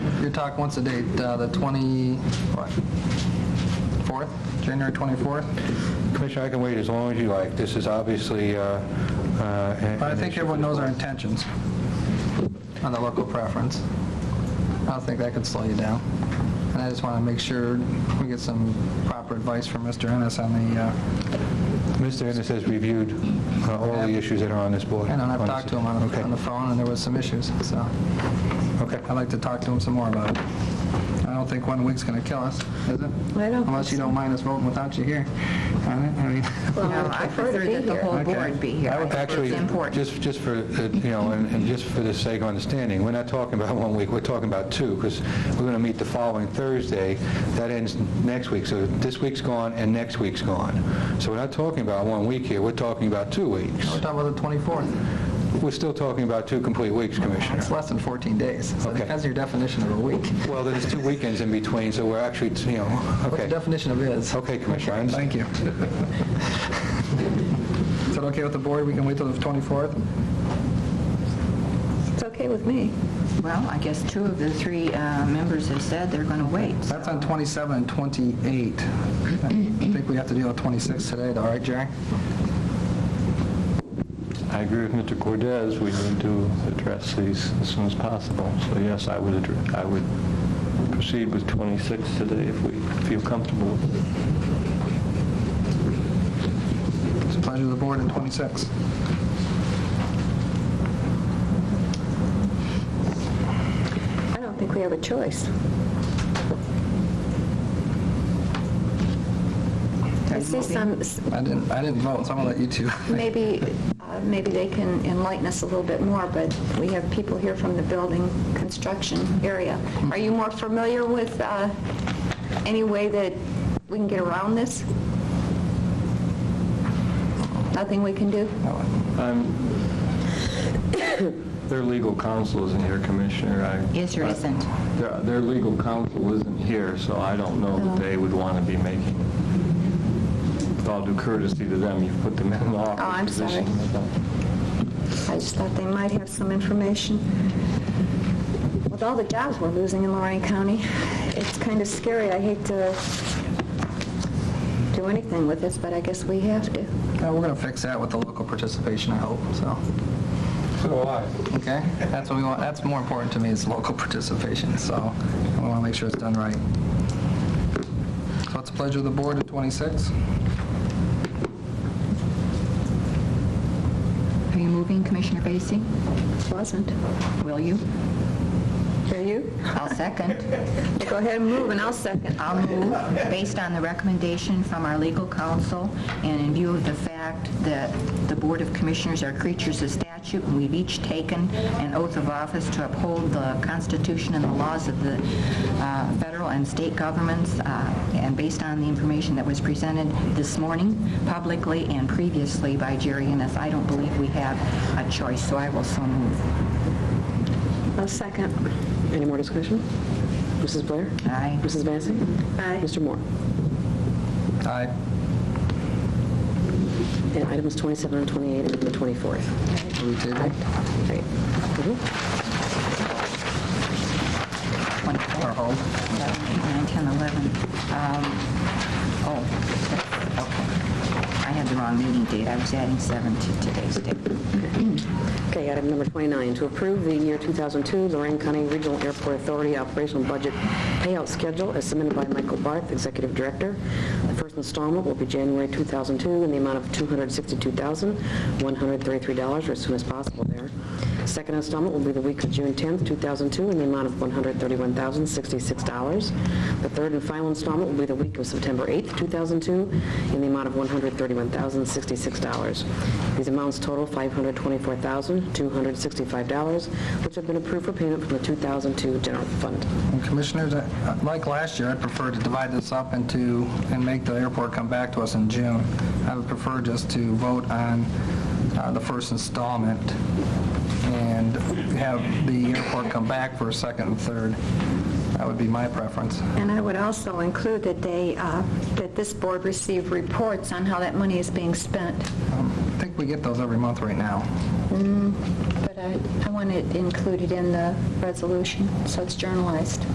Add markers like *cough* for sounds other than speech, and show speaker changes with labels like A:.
A: you're talking, what's the date? Uh, The 20, what? 4th, January 24th?
B: Commissioner, I can wait as long as you like. This is obviously... uh, uh, an-
A: But I
B: an
A: think
B: issue.
A: everyone knows our intentions on the local preference. I don't think that could slow you down. And I just want to make sure we get some proper advice from Mr. Ennis on the, uh,
B: Mr. Ennis has reviewed uh, all the issues that are on this board.
A: and I've
B: On
A: talked
B: this-
A: to him on the-
B: Okay.
A: on the phone, and there was some issues, so
B: Okay.
A: I'd like to talk to him some more about it. I don't think one week's going to kill us, is it?
C: I don't think
A: Unless you
C: so.
A: don't mind us voting without you here. I mean- I mean,
C: *laughs* Well,
A: *laughs*
C: I prefer that the whole
A: Okay.
C: board be here. I think
B: Actually,
C: It's important.
B: just, just for, uh, you know, and and just for the sake of understanding, we're not talking about *laughs* one week, we're talking about two, because we're going to meet the following Thursday. That ends next week, so this week's gone and next week's gone. So we're not talking about one week here, we're talking about two weeks.
A: We're talking about the 24th.
B: We're still talking about two complete weeks, Commissioner.
A: It's less than 14 days, so
B: Okay.
A: that's your definition of a week.
B: Well, there's two weekends in between, so we're actually, you know,
A: What the
B: okay.
A: definition of is.
B: Okay, Commissioner, I understand.
A: Thank you. *laughs* Is it okay with the board? We can wait till the 24th?
C: It's okay with me.
D: Well, I guess two of the three uh, members have said they're going to wait.
A: That's on 27 and 28. I think we have to deal with 26 today, though, right, Jerry?
E: I agree with Mr. Cordez, we need to address these as soon as possible. So yes, I would, addre- I would proceed with 26 today if we feel comfortable.
A: It's the pleasure of the board in 26.
C: I don't think we have a choice. I see some,
A: I didn't, I didn't vote, so I'm gonna let you two.
C: um, maybe, uh, maybe they can enlighten us a little bit more, but we have people here from the building construction area. Are you more familiar with uh, any way that we can get around this? Nothing we can do?
E: Their legal counsel isn't here, Commissioner. I-
D: Is or isn't?
E: Their, their legal counsel isn't here, so I don't know
C: Oh.
E: that they would want to be making, with all due courtesy to them, you've put them in an
C: Oh, I'm
E: awkward
C: sorry.
E: position.
C: I just thought they might have some information. With all the jobs we're losing in Lorraine County, it's kind of scary. I hate to do anything with this, but I guess we have to.
A: Yeah, Uh, We're gonna fix that with the local participation, I hope, so.
B: So do I.
A: Okay? That's what we want, that's more important to me, is local participation, so we wanna make sure it's done right. So it's the pleasure of the board in 26.
D: Are you moving, Commissioner Vacy?
C: Wasn't.
D: Will you?
C: Are you?
D: I'll second.
C: Well, Go ahead and move, and I'll second.
D: I'll move based on the recommendation from our legal counsel and in view of the fact that the Board of Commissioners are creatures of statute and we've each taken an oath of office to uphold the Constitution and the laws of the uh, federal and state governments. uh, And based on the information that was presented this morning publicly and previously by Jerry Ennis, I don't believe we have a choice, so I will so move.
C: I'll second.
F: Any more discussion? Mrs. Blair?
D: Aye.
F: Mrs. Vacy?
C: Aye.
F: Mr. Moore?
A: Aye.
F: And items 27 and 28 and the 24th.
A: We table.
F: Great. Mhm.
D: One,
A: Or hold.
D: 11, 8, 9, 10, 11. Um, Oh, okay. I had the wrong meeting date. I was adding 7 to today's date.
F: Okay, item number 29, to approve the year 2002 Lorraine County Regional Airport Authority Operational Budget Payout Schedule as submitted by Michael Barth, Executive Director. The first installment will be January 2002 in the amount of $262,133 or as soon as possible there. Second installment will be the week of June 10th, 2002 in the amount of $131,066. The third and final installment will be the week of September 8th, 2002 in the amount of $131,066. These amounts total $524,265, which have been approved for payment from the 2002 general fund.
A: And Commissioners, I- like last year, I'd prefer to divide this up into, and make the airport come back to us in June. I would prefer just to vote on uh, the first installment and have the airport come back for a second and third. That would be my preference.
C: And I would also include that they, uh, that this board receive reports on how that money is being spent.
A: Um, I think we get those every month right now.
C: But I I want it included in the resolution, so it's journalized.